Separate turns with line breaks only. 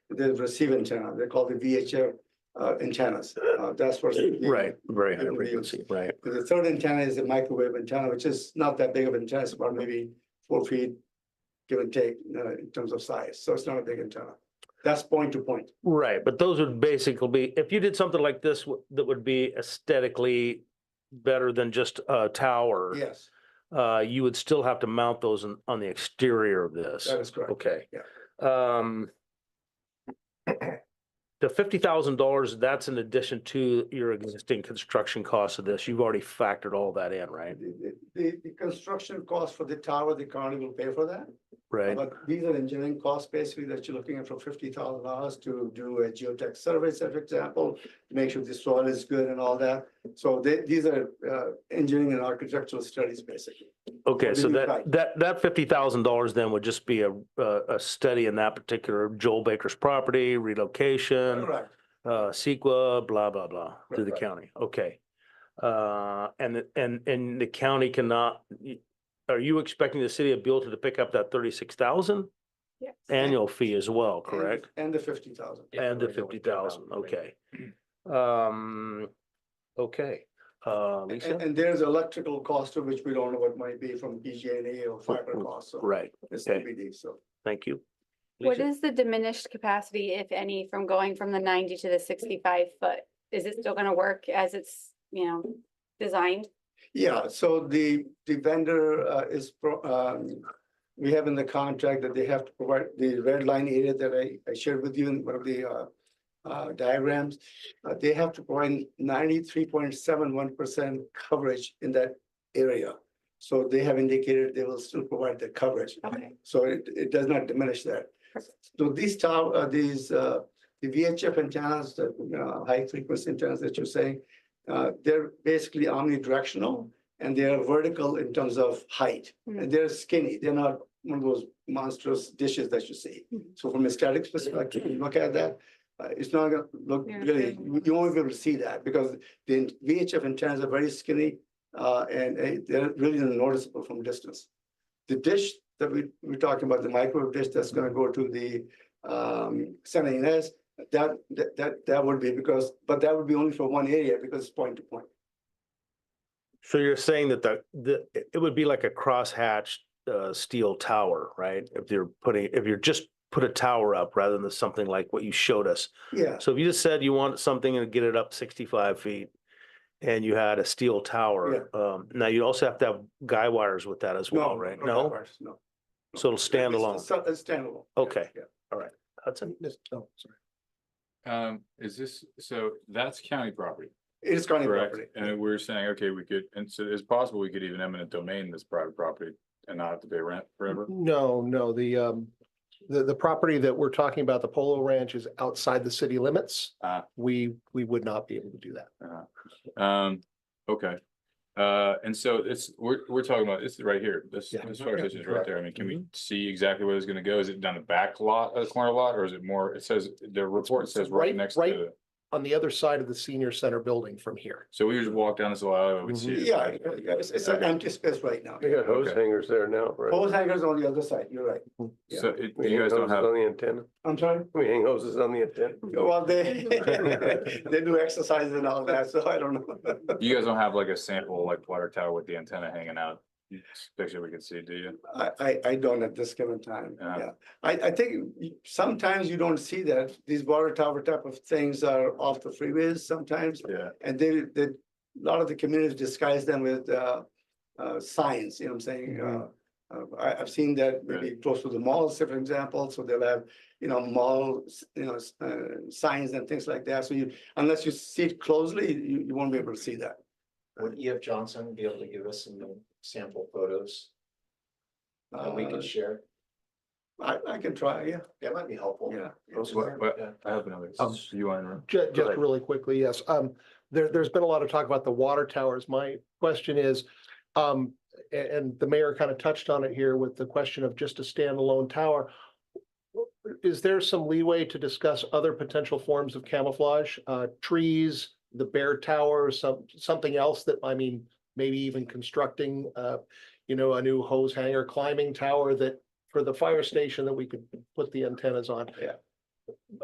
the receive antenna, they call the VHF uh, antennas. Uh, That's what.
Right, very high
It would be-
frequency, right,
The third antenna is a microwave antenna, which is not that big of an antenna, it's about maybe four feet, give and take, uh, in terms of size, so it's not a big antenna. That's point to point.
right, but those would basically be, if you did something like this, w- that would be aesthetically better than just a tower.
Yes,
Uh, you would still have to mount those on, on the exterior of this.
that is correct.
Okay. Yeah. Um. The fifty thousand dollars, that's in addition to your existing construction costs of this. You've already factored all that in, right?
The, the, the construction cost for the tower, the county will pay for that.
Right,
But these are engineering costs basically that you're looking at for fifty thousand dollars to do a geotech survey, say, for example, to make sure the soil is good and all that. So they, these are, uh, engineering and architectural studies basically.
okay,
what do
so
you
that,
think?
that, that fifty thousand dollars then would just be a, a, a study in that particular Joel Baker's property, relocation.
Correct.
uh, CEQA, blah, blah, blah, through the
Right.
county, okay. Uh, and, the- and, and the county cannot, y- are you expecting the city of Buellton to pick up that thirty-six thousand
Yes.
annual fee as well,
And the-
correct?
And the fifty thousand.
And the fifty thousand, okay. Um, okay, uh,
And,
Lisa?
and there's electrical cost to which we don't know what might be from PG&E E or fiber cost, so
Right,
it's
okay.
TBD, E, so.
thank you.
What
Lisa?
is the diminished capacity, if any, from going from the ninety to the sixty-five foot? Is it still gonna work as it's, you know, designed?
Yeah, so the, the vendor uh, is, pro- um, we have in the contract that they have to provide the red line area that I, I shared with you in one of the uh, uh, diagrams. Uh, They have to provide ninety-three point seven one percent coverage in that area. So they have indicated they will still provide the coverage.
Okay,
So it, it does not diminish that. So these tower, uh, these, uh, the VHF antennas, the, you know, high frequency antennas that you're saying, uh, they're basically omnidirectional and they are vertical in terms of height.
Mhm.
And they're skinny, they're not one of those monstrous dishes that you see.
Mhm.
So from a statics perspective, you look at that, uh, it's not gonna look
Yeah,
really,
okay.
you- you won't be able to see that because the VHF antennas are very skinny uh, and uh, they're really noticeable from distance. The dish that we, we're talking about, the microwave dish that's gonna go to the, um, San Ynez, that, that, that, that would be because, but that would be only for one area because it's point to point.
So you're saying that the, the, it would be like a crosshatched, uh, steel tower, right? If you're putting, if you're just put a tower up rather than something like what you showed us.
Yeah,
So if you just said you want something and get it up sixty-five feet and you had a steel tower, um, now you also have to have guy wires with that as well,
no.
right?
not that
No?
part, No.
So it'll stand alone.
It's- It's standalone.
Okay.
Yeah.
Hudson?
Oh, sorry.
Um, is this, so that's county property,
It is county
correct?
property.
And we're saying, okay, we could, and so it's possible we could even eminent domain this private property and not have to pay rent forever?
No, no, the, um, the, the property that we're talking about, the Polo Ranch is outside the city limits.
Ah.
We, we would not be able to do that.
Uh, Um, okay. Uh, and so it's, we're, we're talking about, this is right here, this,
Yeah.
this fire station is right
Correct.
there. I mean, can we see exactly where it's gonna go? Is it down the back lot, of the corner lot, or is it more, it says, the report says right
right-
next to
right-
it.
On the other side of the senior center building from here.
So we just walk down this little alleyway, we'd see. it.
Yeah, yeah, it's, it's an empty space right now.
They got hose
Okay.
hangers there now, right?
Hose hangers on the other side, you're right. yeah.
So it,
We
you
hang
guys don't
hoses
have,
on the antenna.
I'm sorry?
We hang hoses on the antenna.
Well, they, they do exercises and all that, so I don't know.
you guys don't have like a sample, like water tower with the antenna hanging out. Picture we can see, do you?
I, I, I don't at this given time,
Yeah.
yeah. I, I think you- sometimes you don't see that. These water tower type of things are off the freeways sometimes.
Yeah.
And they, they, a lot of the communities disguise them with, uh, uh, signs, you know what I'm saying? Uh, uh, I, I've seen that maybe close to the malls, say, for example, so they'll have, you know, mall, s- you know, s- uh, signs and things like that. So you, unless you see it closely, you, you won't be able to see that.
Would E F Johnson be able to give us some sample photos that we
Uh,
could share?
I, I can try, yeah,
That might be helpful.
yeah.
Those
What-
are-
what-
yeah.
I have another,
Um,
you want to?
Ju- Just,
ahead.
really quickly, yes. Um, there, there's been a lot of talk about the water towers. My question is, um, a- and, the mayor kind of touched on it here with the question of just a standalone tower. Is there some leeway to discuss other potential forms of camouflage, uh, trees, the bear tower, some, something else that, I mean, maybe even constructing, uh, you know, a new hose hanger climbing tower that for the fire station that we could put the antennas on?